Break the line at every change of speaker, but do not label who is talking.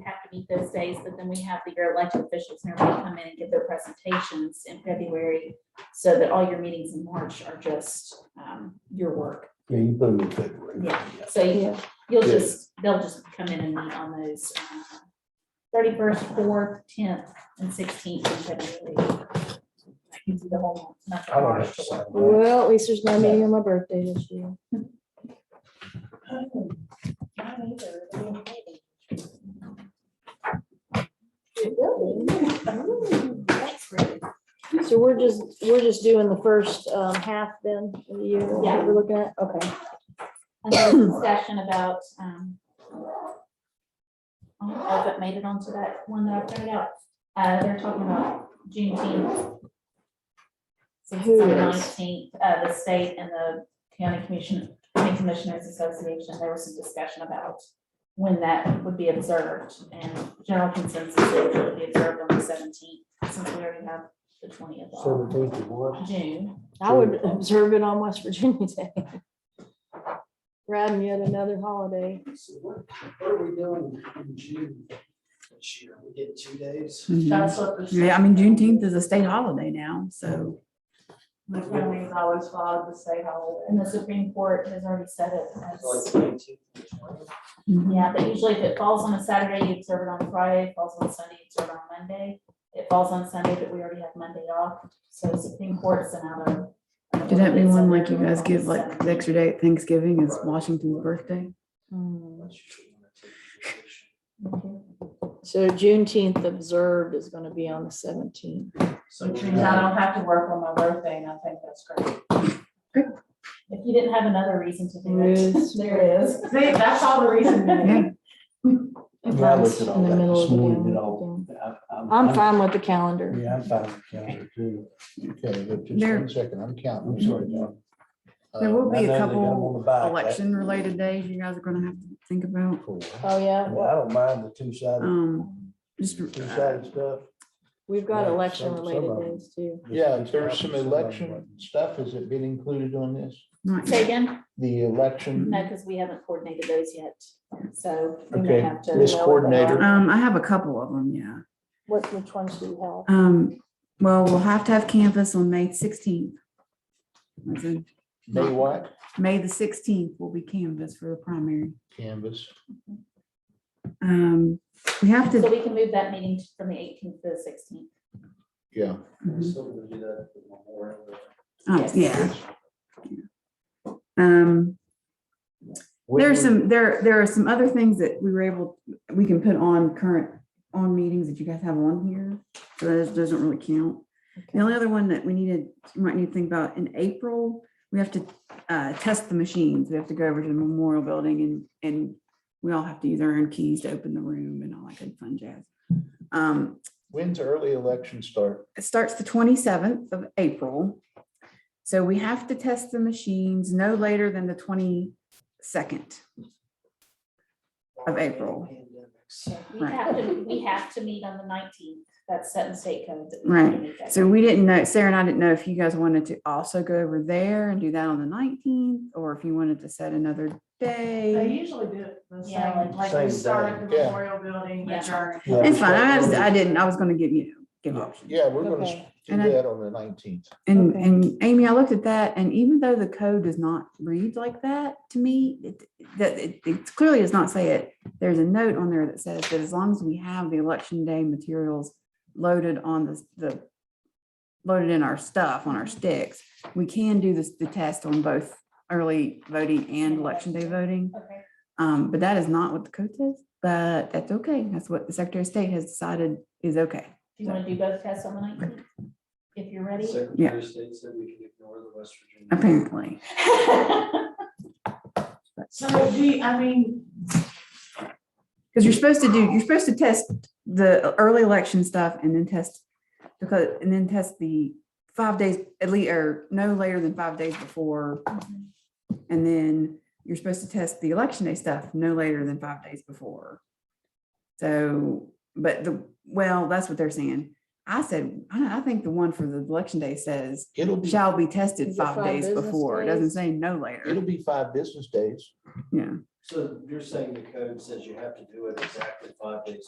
to meet those days, but then we have the- your elected officials and everybody come in and give their presentations in February so that all your meetings in March are just um, your work.
Yeah, you put them in February.
Yeah. So you-
Yeah.
you'll
Yeah.
just, they'll just come in and meet on those uh, thirty-first, fourth, tenth, and sixteenth in February. That gives you the whole month
I
of
don't have
March.
to sign that.
Well, at least there's no meeting on my birthday this year. So we're just, we're just doing the first um, half then of the year, is
Yeah.
what we're looking at, okay.
And there was discussion about, um, I don't know if it made it onto that one that I printed out. Uh, they're talking about Juneteenth. Since it's on the
Who is?
nineteenth, uh, the state and the county commission, county commissioners association, there was some discussion about when that would be observed and general consensus is it would be observed on the seventeenth, since we already have the twentieth of
Seventeenth of what?
June.
I would observe it on West Virginia Day. Rather than yet another holiday.
So what, what are we doing in June this year? We get two days?
Mhm. Yeah, I mean, Juneteenth is a state holiday now, so.
My family's always followed the state holiday.
And the Supreme Court has already said it as.
Like the 19th and the 20th?
mhm.
Yeah, but usually if it falls on a Saturday, you observe it on Friday, If it falls on Sunday, you observe it on Monday. It falls on Sunday, but we already have Monday off, so Supreme Court sent out a.
Could that be one like you guys give like the extra day at Thanksgiving is Washington's birthday?
Unless you should wanna take vacation.
So Juneteenth observed is gonna be on the seventeenth.
So
Which means I don't have to work on my birthday and I think that's great.
If you didn't have another reason to do
Ruth.
it, there is.
See, that's all the reason.
Yeah.
Yeah, I looked at all
In the
that
middle
this
of the
morning,
damn
it all- I-
I'm fine with the calendar.
Yeah, I'm fine with the calendar too.
Okay, but just
There-
one second, I'm counting,
I'm
I'm
sorry,
sorry.
John. Uh,
There will
I
be
know
a
they got 'em on
couple
the
Uh,
back, that-
election related days you guys are gonna have to think about.
Cool.
Oh,
I
yeah,
mean, I don't mind the two-sided,
Um, just, uh,
two-sided stuff.
we've got
Yeah,
election
some- some
related
of 'em.
days too.
Yeah, if there's some election stuff, is it being included on this?
not
Say
yet.
again,
The election,
no, because we haven't coordinated those yet, so we may
Okay,
have to.
this
lower the
coordinator.
bar.
um, I have a couple of them, yeah.
What, which ones do you have?
Um, well, we'll have to have canvas on May sixteenth.
May what?
May the sixteenth will be canvas for the primary.
Canvas.
Um, we have
So
to,
we can move that meeting from the eighteenth to the sixteenth.
Yeah,
We're
Mhm.
still gonna do that for Memorial Day.
oh, yeah. Um, There's some, there, there are some other things that we were able, we can put on current, on meetings that you guys have on here. So that doesn't really count. The only other one that we needed, you might need to think about in April, we have to uh, test the machines. We have to go over to the memorial building and, and we all have to use our own keys to open the room and all that good fun jazz. Um,
When's early election start?
It starts the twenty-seventh of April. So we have to test the machines no later than the twenty-second. Of April.
Pandemics.
We
Right.
have to, we have to meet on the nineteenth, that's set in state code. that we have to
Right.
meet that.
So we didn't know, Sarah and I didn't know if you guys wanted to also go over there and do that on the nineteenth, or if you wanted to set another
They
day.
usually do it the
Yeah,
same, like
Same
we start at the
day, yeah.
memorial building,
Yeah.
adjourn.
Yeah,
It's
we
fine. I
start
just,
early.
I didn't, I was gonna give you, give options.
Yeah, we're gonna
Okay.
s- do
And I-
that on the nineteenth.
And,
Okay.
and Amy, I looked at that and even though the code does not read like that to me, it, that, it it clearly does not say it. There's a note on there that says that as long as we have the election day materials loaded on the, the loaded in our stuff, on our sticks, we can do this, the test on both early voting and election day voting.
Okay.
Um, but that is not what the code says, but that's okay. That's what the Secretary of State has decided is okay.
Do you want to do both tests on the nineteenth? If you're ready.
Secretary of State said we can ignore the West Virginia.
Apparently,
So, gee, I mean,
because you're supposed to do, you're supposed to test the early election stuff and then test because, and then test the five days at least, or no later than five days before. And then you're supposed to test the election day stuff no later than five days before. So, but the, well, that's what they're saying. I said, I, I think the one for the election day says
It'll be,
shall be tested
Is it
five
five
days
business
before. It doesn't say no later.
it'll be five business days.
Yeah.
So you're saying the code says you have to do it exactly five days